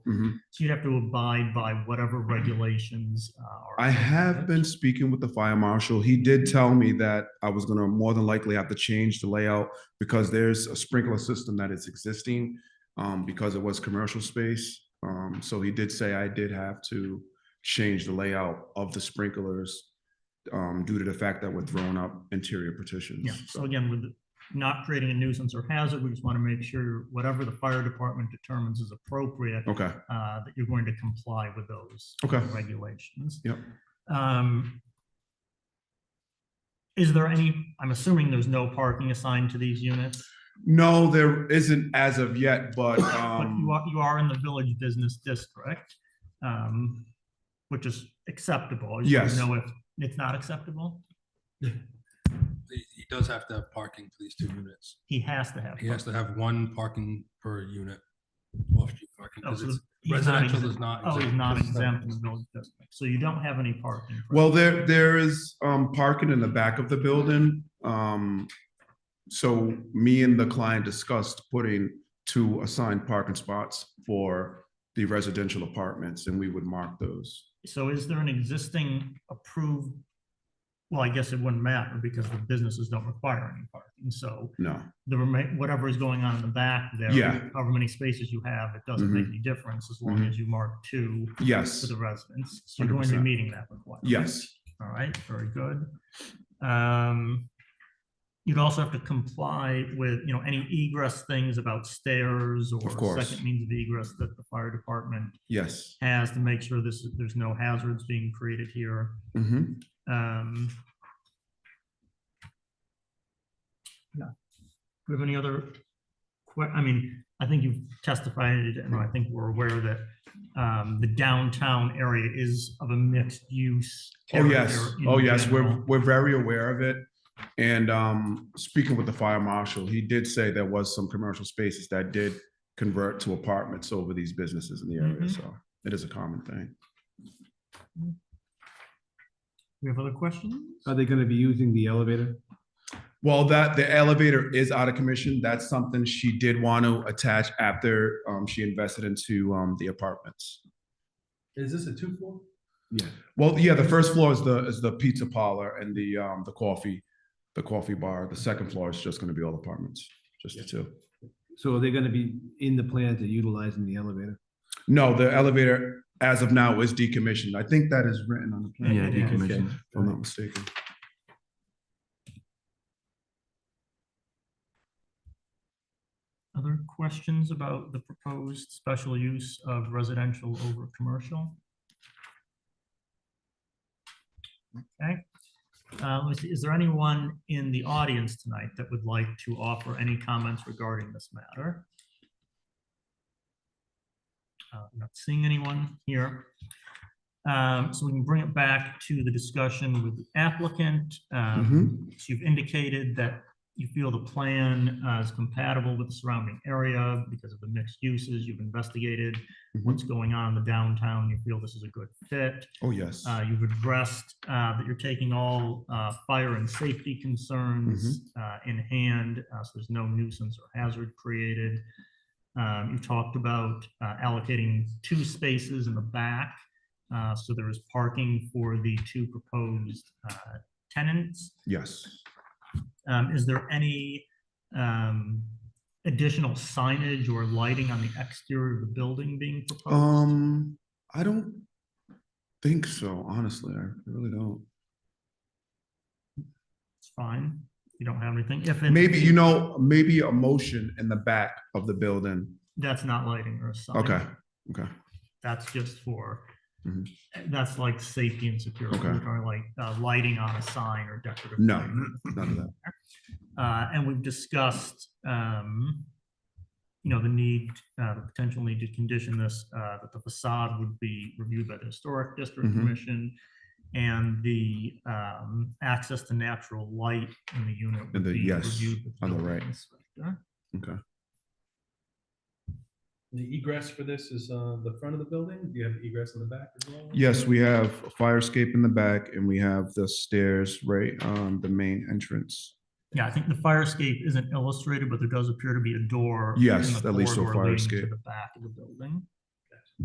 Mhm. So you'd have to abide by whatever regulations. uh, are Mm-hmm. I have been speaking with the fire marshal. He did tell me that I was gonna more than likely have to change the layout because there's a sprinkler system that is existing, um, because it was commercial space. Um, so he did say I did have to change the layout of the sprinklers, um, due to the fact that we're throwing up interior partitions. Yeah, so again, with not creating a nuisance or hazard, we just want to make sure whatever the fire department determines is appropriate, Okay, uh, that you're going to comply with those okay. regulations. Yep. Um, Is there any, I'm assuming there's no parking assigned to these units, No, there isn't as of yet, but, but you um, are, you are in the village business district, um, which is acceptable. You Yes. Know if it's not acceptable, He he does have to have parking for these two units. he has to have. He has to have one parking per unit. Off-street parking, Oh, because so it's he's not residential exempt. is not. Oh, he's not This is exempt in the village district, so you don't have any parking. for- well, there, there is, um, parking in the back of the building. Um, so me and the client discussed putting two assigned parking spots for the residential apartments and we would mark those. So is there an existing approved? Well, I guess it wouldn't matter because the businesses don't require any parking, so No, the remain, whatever is going on in the back there. Yeah. However many spaces you have, it doesn't Mm-hmm. make any difference as long Mhm. as you mark two for yes, the residents. So you're going to be 100%. meeting that requirement. yes, All right, very good. Um, you'd also have to comply with, you know, any egress things about stairs or Of course. second means of egress that the fire department yes. has to make sure this, there's no hazards being created here. Mhm. Um. Yeah. Do we have any other que, I mean, I think you've testified and I think we're aware that um, the downtown area is of a mixed use. Oh, area yes, in oh, yes, we're, general. we're very aware of it. And, um, speaking with the fire marshal, he did say there was some commercial spaces that did convert to apartments over these businesses in the area, Mhm. so it is a common thing. We have other questions? Are they gonna be using the elevator? Well, that the elevator is out of commission. That's something she did want to attach after um, she invested into um, the apartments. Is this a two-floor? Yeah. Well, yeah, the first floor is the is the pizza parlor and the um, the coffee, the coffee bar. The second floor is just going to be all apartments, just the two. So are they gonna be in the plan to utilizing the elevator? No, the elevator as of now is decommissioned. I think that is written on the plan. Yeah, if decommissioned. Okay. I'm not mistaken. Other questions about the proposed special use of residential over commercial? Okay, Uh, let me see, is there anyone in the audience tonight that would like to offer any comments regarding this matter? Uh, Not seeing anyone here. Um, So we can bring it back to the discussion with the applicant. Um, Mhm. so you've indicated that you feel the plan uh, is compatible with the surrounding area because of the mixed uses. You've investigated Mhm. what's going on in the downtown. You feel this is a good fit. Oh yes. Uh, You've addressed uh, that you're taking all uh, fire and safety concerns Mm-hmm. uh, in hand, uh, so there's no nuisance or hazard created. Um, You talked about uh, allocating two spaces in the back, uh, so there is parking for the two proposed uh, tenants. yes. Um, is there any, um, additional signage or lighting on the exterior of the building being proposed? Um, I don't think so. Honestly, I really don't. It's fine. You don't have anything. If it- Maybe, you know, maybe a motion in the back of the building. That's not lighting or sign. Okay, okay. That's just for, Mhm. that's like safety and security, Okay. or like, uh, lighting on a sign or decorative. No, lighting. none of that. Uh, and we've discussed, um, you know, the need, uh, the potential need to condition this, uh, that the facade would be reviewed by the Historic District Mhm. Commission and the, um, access to natural light in the unit. would And the- be yes, reviewed with on the building right. inspector. Okay. The egress for this is uh, the front of the building? Do you have egress in the back as well? Yes, we have a fire escape in the back and we have the stairs right on the main entrance. Yeah, I think the fire escape isn't illustrated, but there does appear to be a door. in Yes, the at least so corridor fire leading to escape. The back of the building.